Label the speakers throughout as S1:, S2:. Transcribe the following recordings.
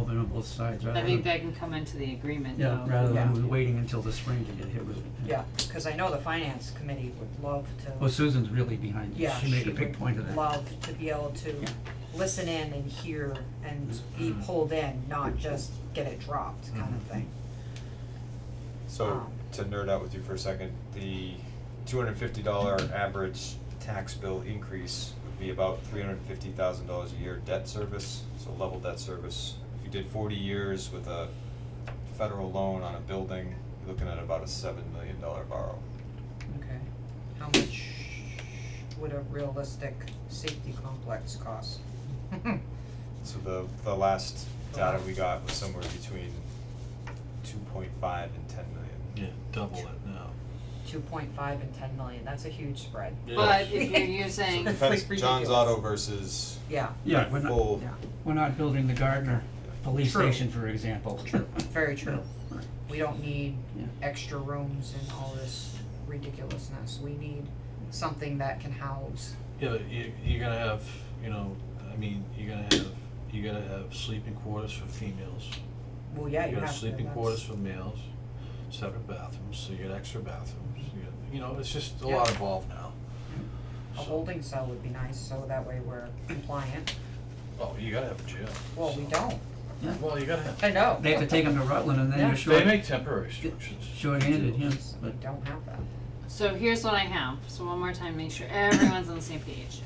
S1: both sides rather
S2: I
S1: than.
S2: think that can come into the agreement
S1: Yeah,
S2: though.
S1: rather
S3: Yeah.
S1: than waiting until the spring to get hit with it.
S3: Yeah, cause I know the finance committee would love
S1: Well,
S3: to,
S1: Susan's really behind this.
S3: yeah,
S1: Oh, She
S3: she
S1: made a big point of
S3: would
S1: that.
S3: love to be able to
S1: Yeah. Mm-hmm.
S3: listen in and hear and be pulled in, not just get it dropped kind of thing.
S4: So
S3: Um,
S4: to nerd out with you for a second, the two hundred fifty dollar average tax bill increase would be about three hundred fifty thousand dollars a year debt service, so level debt service. If you did forty years with a federal loan on a building, you're looking at about a seven million dollar borrow.
S3: Okay, how much would a realistic safety complex cost?
S4: So the the last data we got was somewhere between two point five and ten million.
S5: Yeah, double it now.
S3: Two point five and ten million, that's a huge spread.
S2: But if you're
S4: So
S2: using,
S3: It's like
S4: depends,
S3: ridiculous.
S4: John's Auto versus
S3: Yeah,
S1: Yeah, we're not,
S4: full,
S3: yeah,
S1: we're not building the Gardner police
S3: True.
S1: station, for example.
S3: very true.
S1: Yeah, right.
S3: We don't need
S1: Yeah.
S3: extra rooms and all this ridiculousness, we need something that can house,
S5: Yeah, but you, you're gonna have, you know, I mean, you're gonna have, you gotta have sleeping quarters for females.
S3: well, yeah, you have
S5: You're
S3: to,
S5: gonna have
S3: that's.
S5: sleeping quarters for males, separate bathrooms, so you get extra bathrooms, you get, you know, it's just a lot
S3: Yeah.
S5: involved now.
S3: A
S5: So-
S3: holding cell would be nice, so that way we're compliant.
S5: Oh, you gotta have a jail.
S3: Well, we don't,
S1: Yeah.
S5: Well, you gotta have,
S3: I know.
S1: They have to take them to Rutland and then
S3: Yeah.
S1: you're
S5: they
S1: short,
S5: make temporary structures.
S1: short-handed, yeah,
S3: We
S1: but,
S3: don't have that.
S2: so here's what I have, so one more time, make sure everyone's on the same page.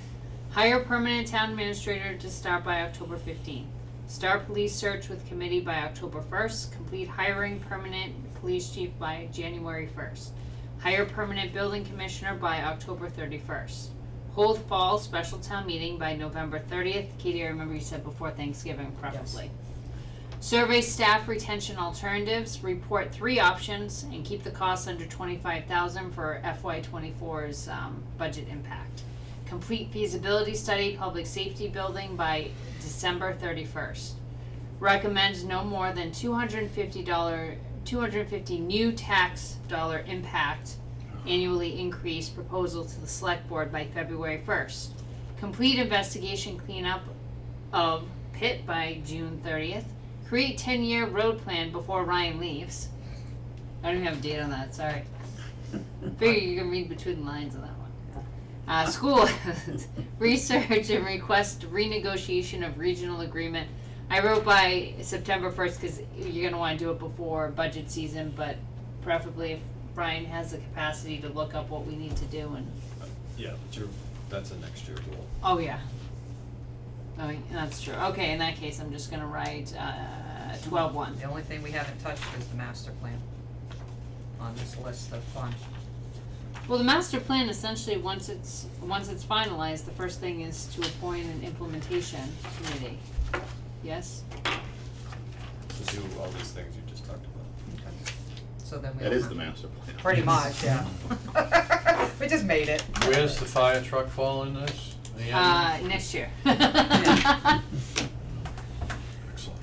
S2: Hire permanent town administrator to start by October fifteenth. Start police search with committee by October first, complete hiring permanent police chief by January first. Hire permanent building commissioner by October thirty-first. Hold fall special town meeting by November thirtieth, Katie, I remember you said before Thanksgiving preferably. Survey staff retention alternatives, report three options and keep the costs under twenty-five thousand for FY 24s um, budget impact. Complete feasibility study, public safety building by December thirty-first. Recommend no more than two hundred and fifty dollar, two hundred and fifty new tax dollar impact annually increase proposal to the select board by February first. Complete investigation cleanup of pit by June thirtieth. Create ten year road plan before Ryan leaves. I don't even have a date on that, sorry. Figure you can read between the lines on that one. Uh, school, research and request renegotiation of regional agreement. I wrote by September first, cause you're gonna wanna do it before budget season, but preferably if Brian has the capacity to look up what we need to do and,
S4: yeah, but you're, that's a next year goal.
S2: oh yeah. Oh, y- that's true, okay, in that case, I'm just gonna write, uh, twelve one.
S3: The only thing we haven't touched is the master plan on this list of funds.
S2: Well, the master plan essentially, once it's, once it's finalized, the first thing is to appoint an implementation committee, yes?
S4: to do all these things you just talked about.
S3: So then we
S6: That
S3: don't
S6: is
S3: have-
S6: the master plan.
S3: Pretty much, yeah. We just made it.
S5: Where's the fire truck fall in this? The
S2: Uh, next
S5: ambulance?
S2: year.
S5: Excellent.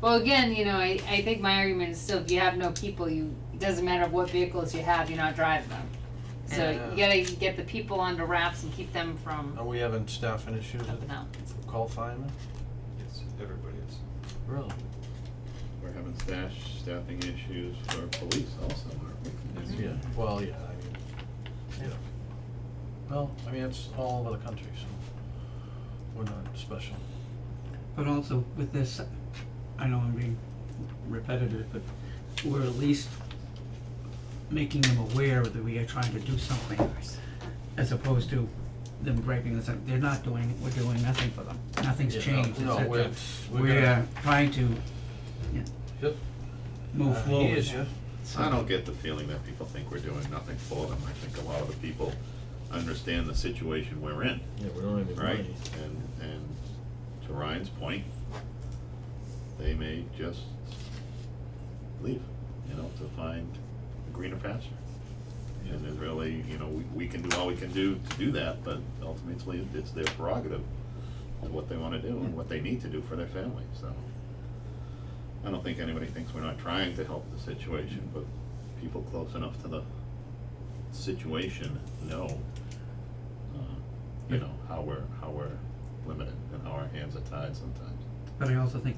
S2: Well, again, you know, I, I think my argument is still, if you have no people, you, it doesn't matter what vehicles you have, you're not driving them. So you gotta get the people under wraps and keep them from
S5: Are we having staffing issues
S2: up and
S5: at
S2: out.
S5: call firemen?
S4: Yes, everybody is.
S5: Really?
S6: We're having staff, staffing issues for police also, aren't we?
S5: Yeah, well, yeah, I mean, yeah. Well, I mean, it's all over the country, so we're not special.
S1: but also with this, I know I'm being repetitive, but we're at least making them aware that we are trying to do something, as opposed to them griping and saying, they're not doing, it, we're doing nothing for them, nothing's
S5: Yeah,
S1: changed, et
S5: No,
S1: cetera.
S5: no, we're, we're
S1: We're
S5: gonna.
S1: trying to, yeah,
S5: Yep.
S1: move
S5: Uh,
S1: forward.
S5: He is, yeah.
S1: So-
S6: I don't get the feeling that people think we're doing nothing for them. I think a lot of the people understand the situation we're in,
S5: Yeah, we don't have any
S6: right?
S5: money.
S6: And, and to Ryan's point, they may just leave, you know, to find a greener pasture. And there's really, you know, we, we can do all we can do to do that, but ultimately it's their prerogative of what they wanna do and what they need to do for their family, so. I don't think anybody thinks we're not trying to help the situation, but people close enough to the situation know, uh, you know, how we're, how we're limited and how our hands are tied sometimes.
S1: But I also think